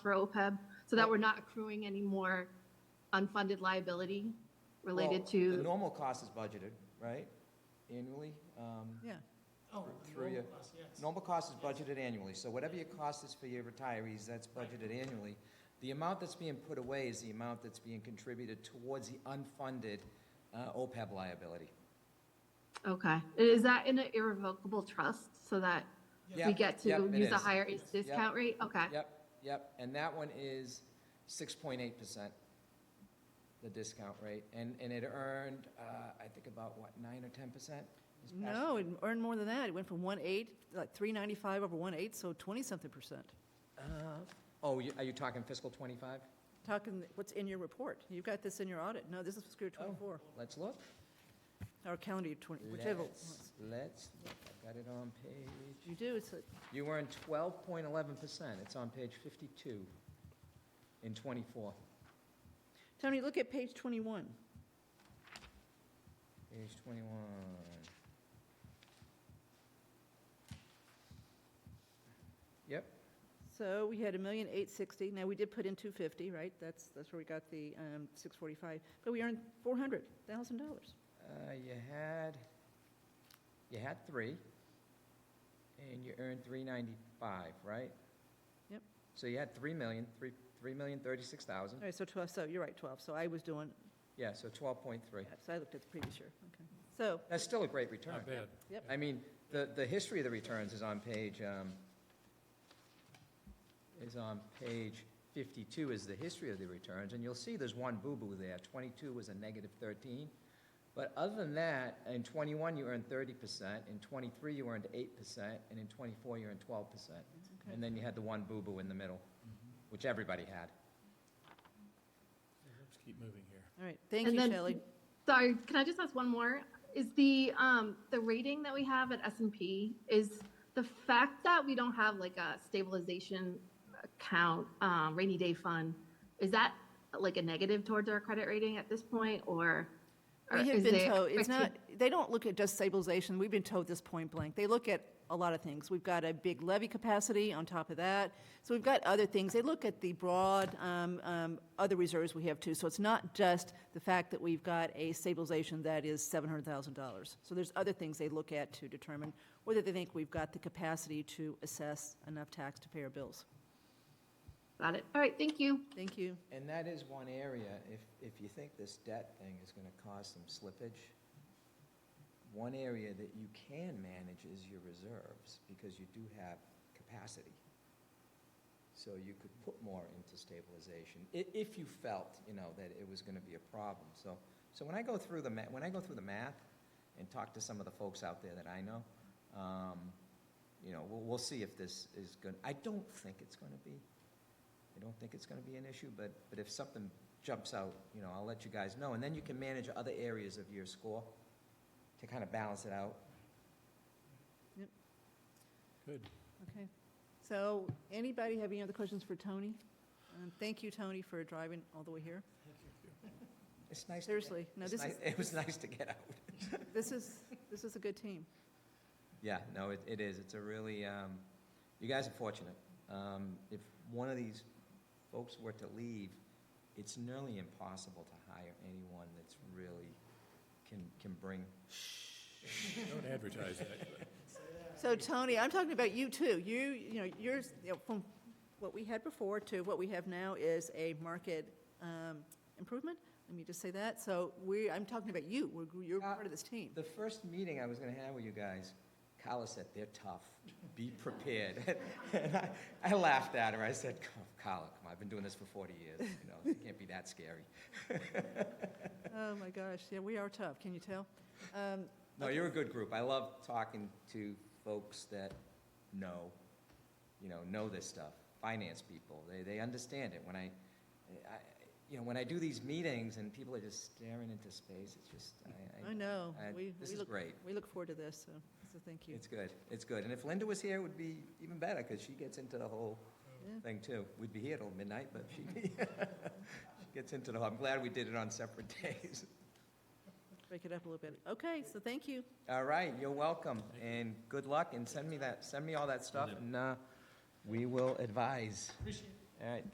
for OPEB, so that we're not accruing any more unfunded liability related Well, The to, normal cost is budgeted, right, annually? um, Yeah, Oh, Through normal your- cost, yes. Normal cost is budgeted annually, so whatever your cost is for your retirees, that's budgeted annually. The amount that's being put away is the amount that's being contributed towards the unfunded uh, OPEB liability. okay. Is that in an irrevocable trust so that we Yep, get yep, to it use a is. higher discount rate? Okay, Yep, yep, and that one is six point eight percent, the discount rate, and, and it earned, uh, I think about, what, nine or ten percent? no, it earned more than that. It went from 1.8, like 395 over 1.8, so 20-something percent. Oh, you- are you talking fiscal twenty-five? Talking, what's in your report? You've got this in your audit. No, this is fiscal year Oh. 24, Let's look. or calendar year 20, whichever. Let's, let's, look. I've got it on page, You do, it's, a- you earned twelve point eleven percent, it's on page fifty-two in twenty-four. Tony, look at page 21. Page twenty-one. Yep, So we had a million eight sixty. Now, we did put in 250, right? That's, that's where we got the um, 645, but we earned $400,000. Uh, you had, you had three, and you earned three ninety-five, right? Yep. So you had three million, three, three million thirty-six thousand, All right, so 12, so you're right, 12. So I was doing, yeah, so twelve point three. yeah, so I looked at the previous year. Okay. So, That's still a great return. Not bad. I mean, the, the history of the returns is on page, um, is on page fifty-two is the history of the returns, and you'll see there's one boo-boo there, twenty-two was a negative thirteen. But other than that, in twenty-one, you earned thirty percent, in twenty-three, you earned eight percent, and in twenty-four, you earned twelve percent. Okay. And then you had the one boo-boo in the middle, which everybody had. Let's keep moving here. all right, thank And you, then- Shelley. sorry, can I just ask one more? Is the, um, the rating that we have at S and P, is the fact that we don't have like a stabilization account, um, rainy day fund, is that like a negative towards our credit rating at this point, or? or We Uh, is have been there told, it's not, expected- they don't look at just stabilization, we've been told this point blank. They look at a lot of things. We've got a big levy capacity on top of that, so we've got other things. They look at the broad, um, um, other reserves we have too. So it's not just the fact that we've got a stabilization that is $700,000. So there's other things they look at to determine whether they think we've got the capacity to assess enough tax to pay our bills. Got it. All right, thank you. Thank you. And that is one area, if, if you think this debt thing is gonna cause some slippage, one area that you can manage is your reserves, because you do have capacity. So you could put more into stabilization, i- if you felt, you know, that it was gonna be a problem. So, so when I go through the ma, when I go through the math and talk to some of the folks out there that I know, um, you know, we'll, we'll see if this is gonna, I don't think it's gonna be. I don't think it's gonna be an issue, but, but if something jumps out, you know, I'll let you guys know, and then you can manage other areas of your score to kind of balance it out. Good. Okay. So anybody have any other questions for Tony? Um, Thank you, Tony, for driving all the way here. It's nice. to get- Seriously, no, it's this ni- is, It was nice to get out. this is, this is a good team. Yeah, no, it, it is, it's a really, um, you guys are fortunate. Um, if one of these folks were to leave, it's nearly impossible to hire anyone that's really, can, can bring. Don't advertise that. So Tony, I'm talking about you too. You, you know, yours, you know, from what we had before to what we have now is a market um, improvement. Let me just say that. So we, I'm talking about you. We're- You're Uh, part of this team. The first meeting I was gonna have with you guys, Kyla said, they're tough, be prepared. And I, I laughed at her, I said, "Come, Kyla, come on, I've been doing this for forty years, you know, it can't be that scary. Oh, my gosh. Yeah, we are tough. Can you tell? Um, No, you're a good group, I love talking to folks that know, you know, know this stuff, finance people, they, they understand it. When I, I, you know, when I do these meetings and people are just staring into space, it's just, I, I I, know. I- We, this we is look, great. we look forward to this, so, so thank you. It's good, it's good. And if Linda was here, it would be even better, because she gets into the whole Yeah. thing too. We'd be here till midnight, but she, she gets into the whole, I'm glad we did it on separate days. Break it up a little bit. Okay, so thank you. All right, you're welcome, and good luck, and send me that, send me all that stuff, and, uh, we will advise. Appreciate it. All right,